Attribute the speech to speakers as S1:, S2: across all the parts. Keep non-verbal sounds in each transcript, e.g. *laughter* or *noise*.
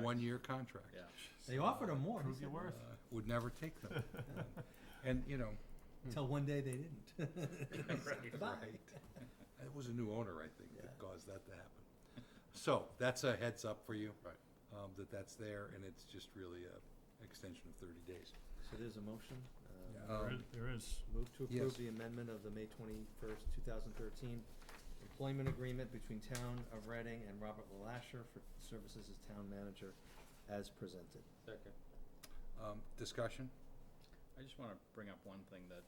S1: one-year contract.
S2: Yeah.
S3: They offered him more. he
S4: Prove your
S3: said,
S4: worth.
S3: "Uh,
S1: Would never take
S5: *laughs*
S1: them. And, you know,
S4: Hmm.
S3: Until uh," one day they
S4: *laughs*
S3: didn't. *laughs*
S2: Right,
S3: Bye.
S1: right. it was a new owner, I think, that
S3: Yeah.
S1: caused that to happen. So that's a heads up for you. Um, that that's there and it's just really a extension of thirty days.
S6: So there's a motion. uh,
S1: Yeah.
S4: There
S1: Um,
S4: is- There is.
S6: Move to
S1: Yes.
S6: approve the amendment of the May twenty-first, two thousand thirteen employment agreement between Town of Reading and Robert Lasher for services as town manager as presented.
S2: Second.
S1: Um, discussion?
S2: I just wanna bring up one thing that,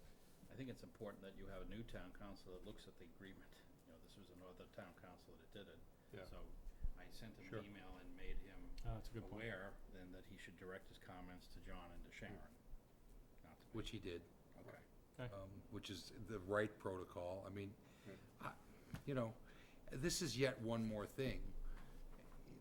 S2: I think it's important that you have a new town council that looks at the agreement. You know, this was another town council that did it.
S4: Yeah.
S2: So I sent him
S1: Sure.
S2: an email and made him
S4: Ah, that's a good point.
S2: aware then that he should direct his comments to John and to Sharon. Not to me.
S1: Which he did.
S2: Okay.
S1: um, which is the right protocol. I mean, I, you know, this is yet one more thing.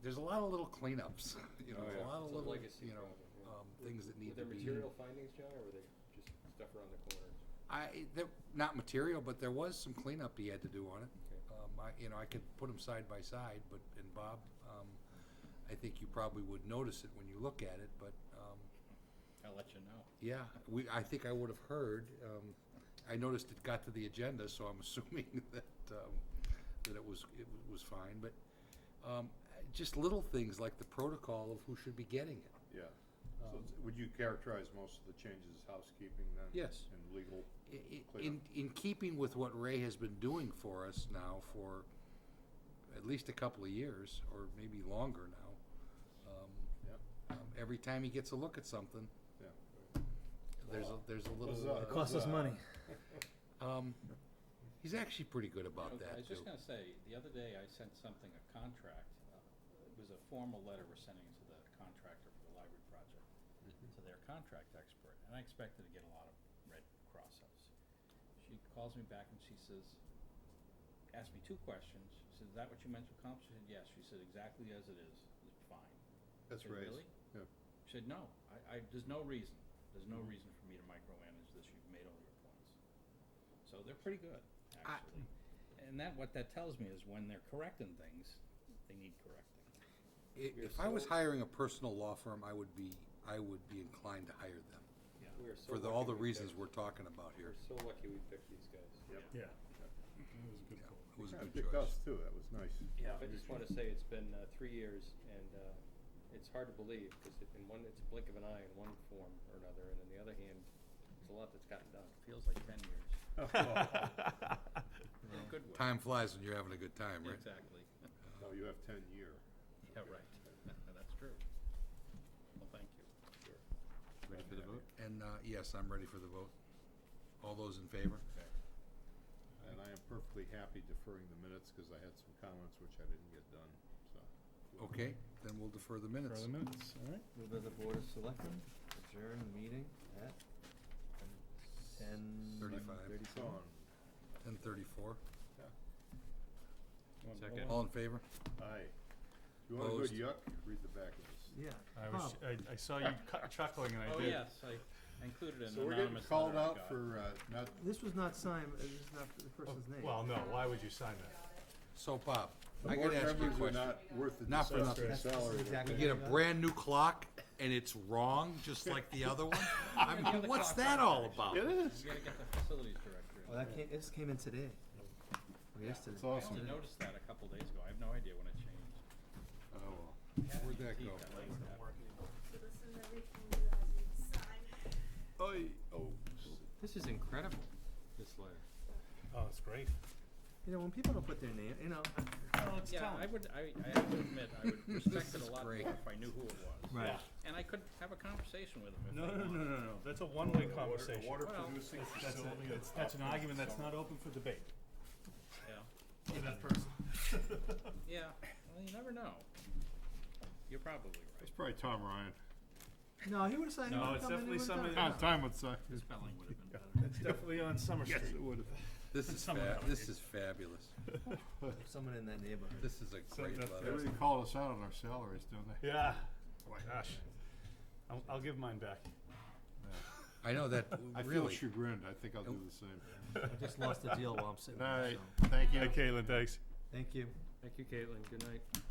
S1: There's a lot of little cleanups, *laughs* you know,
S5: Oh,
S1: there's
S5: yeah.
S1: a lot of
S5: It's a
S1: little,
S5: legacy
S1: you know,
S5: problem, yeah.
S1: um, things that need
S5: Were
S1: to
S5: there
S1: be.
S5: material findings, John, or were they just stuff around the corners?
S1: I, there, not material, but there was some cleanup he had to do on it.
S5: Okay.
S1: Um, I, you know, I could put them side by side, but, and Bob, um, I think you probably would notice it when you look at it, but, um,
S2: I'll let you know.
S1: yeah, we, I think I would have heard, um, I noticed it got to the agenda, so I'm *laughs* assuming that, um, that it was, it was fine, but, um, just little things like the protocol of who should be getting it.
S7: Yeah.
S1: um,
S7: So it's- would you characterize most of the changes as housekeeping then?
S1: Yes.
S7: And legal?
S1: I- i-
S7: Clear.
S1: In, in keeping with what Ray has been doing for us now for at least a couple of years, or maybe longer now. um,
S7: Yep.
S1: um, Every time he gets a look at something,
S7: Yeah.
S1: there's a, there's a little,
S7: Huzzah.
S6: It costs us
S7: Huzzah.
S6: money.
S1: uh, um, he's actually pretty good about
S2: I
S1: that
S2: was
S1: too.
S2: just gonna say, the other day I sent something, a contract, uh, it was a formal letter we're sending to the contractor for the library project,
S1: Mm-hmm.
S2: to their contract expert, and I expected to get a lot of red cross-outs. She calls me back and she says, asked me two questions, she said, is that what you meant to accomplish? I said, yes, she said, exactly as it is, it's fine. Is
S7: That's
S2: it
S7: right.
S2: really?
S7: Yeah. Mm-hmm.
S2: She said, no, I, I, there's no reason, there's no reason for me to micromanage this, you've made all your points. So they're pretty good,
S1: I-
S2: actually. And that, what that tells me is when they're correcting things, they need correcting.
S1: I-
S5: We are
S1: If I was
S5: so-
S1: hiring a personal law firm, I would be, I would be inclined to hire them
S5: We are so
S1: for the,
S5: lucky
S1: all the
S5: we
S1: reasons
S5: picked-
S1: we're talking about here.
S5: We're so lucky we picked these guys.
S7: Yep.
S4: Yeah. That was a good
S1: Yeah,
S4: call.
S1: It was a
S7: Yeah,
S1: good
S7: picked
S1: choice.
S7: us, too, that was
S1: *laughs*
S7: nice. *laughs*
S5: Yeah, I just want to say it's been uh, three years, and uh, it's hard to believe because in one, it's a blink of an eye in one form or another, and on the other hand, it's a lot that's gotten done.
S2: Feels like ten *laughs* years. In a good way.
S1: Time flies when you're having a good time, right?
S2: Exactly.
S7: No, you have ten year.
S2: Yeah, right. *laughs* That's true. Well, thank you.
S5: Ready for the vote?
S1: And, uh, yes, I'm ready for the vote. All those in favor?
S7: And I am perfectly happy deferring the minutes because I had some comments which I didn't get done, so.
S1: Okay, then we'll defer the minutes.
S4: Further minutes, all right.
S6: Move that the board of selectmen adjourn the meeting at ten
S1: Thirty-five.
S6: thirty-seven.
S7: Sean,
S1: Ten thirty-four.
S4: You want to
S5: Second.
S4: roll
S1: All
S4: on?
S1: in favor?
S7: aye. Do you want a
S1: Opposed?
S7: good yuck? Read the back of this.
S6: Yeah.
S4: I was,
S6: Bob,
S4: I, I saw you cu- chuckling and I
S2: Oh,
S4: did.
S2: yes, I I included an
S7: So we're getting
S2: anonymous
S7: called
S2: letter I
S7: out
S2: got.
S7: for, uh, not,
S6: This was not signed, uh, this is not the person's name.
S4: Oh, Well, no, why would you sign that?
S1: So Bob,
S7: the
S1: I
S7: board
S1: gotta ask you a
S7: members are
S1: question.
S7: not worth the
S1: Not for
S7: discuss
S1: nothing.
S7: their
S6: That's- this is
S7: salary.
S6: exactly
S1: We get a
S6: what I got.
S1: brand new clock and it's wrong, just like the other
S7: *laughs*
S1: one? I mean, what's that all about?
S7: It is.
S2: You gotta get the facilities director. in.
S6: Oh, that came, this came in today. Or yesterday.
S7: It's
S2: I
S7: awesome.
S2: only noticed that a couple days ago. I have no idea when it changed.
S1: Oh, well. Where'd that
S2: Gee,
S1: go?
S2: that lady that-
S8: So this is everything you guys need to sign.
S7: Oh,
S5: This is incredible, this letter.
S4: Oh, that's great.
S6: You know, when people don't put their name, you know,
S2: Yeah, I would, I, I have to admit, I
S1: *laughs*
S2: would respect it a lot more
S1: great.
S2: if I knew who it was.
S6: Right.
S2: And I could have a conversation with him if
S4: No,
S2: I
S4: no, no,
S2: wanted.
S4: no, no, no. That's a one-way conversation.
S7: Water
S2: Well,
S7: producing
S4: That's- that's a-
S7: facility.
S4: that's- That's an argument that's not open for debate.
S2: Yeah.
S4: For that person.
S2: Yeah, well, you never know. You're probably right.
S7: It's probably Tom Ryan.
S6: no, he would have signed. he
S4: No,
S6: would've
S4: it's
S6: come in,
S4: definitely
S6: he would've done
S4: somebody-
S6: it.
S4: *laughs* Ah,
S7: Ah, Tom would suck.
S2: The spelling would have been better.
S4: That's definitely on Summer Street.
S7: *laughs* would have.
S1: This is
S4: Someone
S1: fab,
S4: else.
S1: this is fabulous.
S6: Someone in that neighborhood.
S1: This is a great
S4: that's-
S7: They
S1: letter.
S7: really call us out on our salaries, don't they?
S4: Yeah. Oh Gosh. I'll, I'll give mine back.
S1: I know that,
S7: *laughs* I feel
S1: really.
S7: chagrined. I think I'll do the same.
S6: I just lost a deal while I'm sitting
S7: All
S6: there,
S7: right.
S6: so,
S7: Thank you.
S4: Hey, Caitlin, thanks.
S6: thank you.
S5: Thank you, Caitlin. Good night.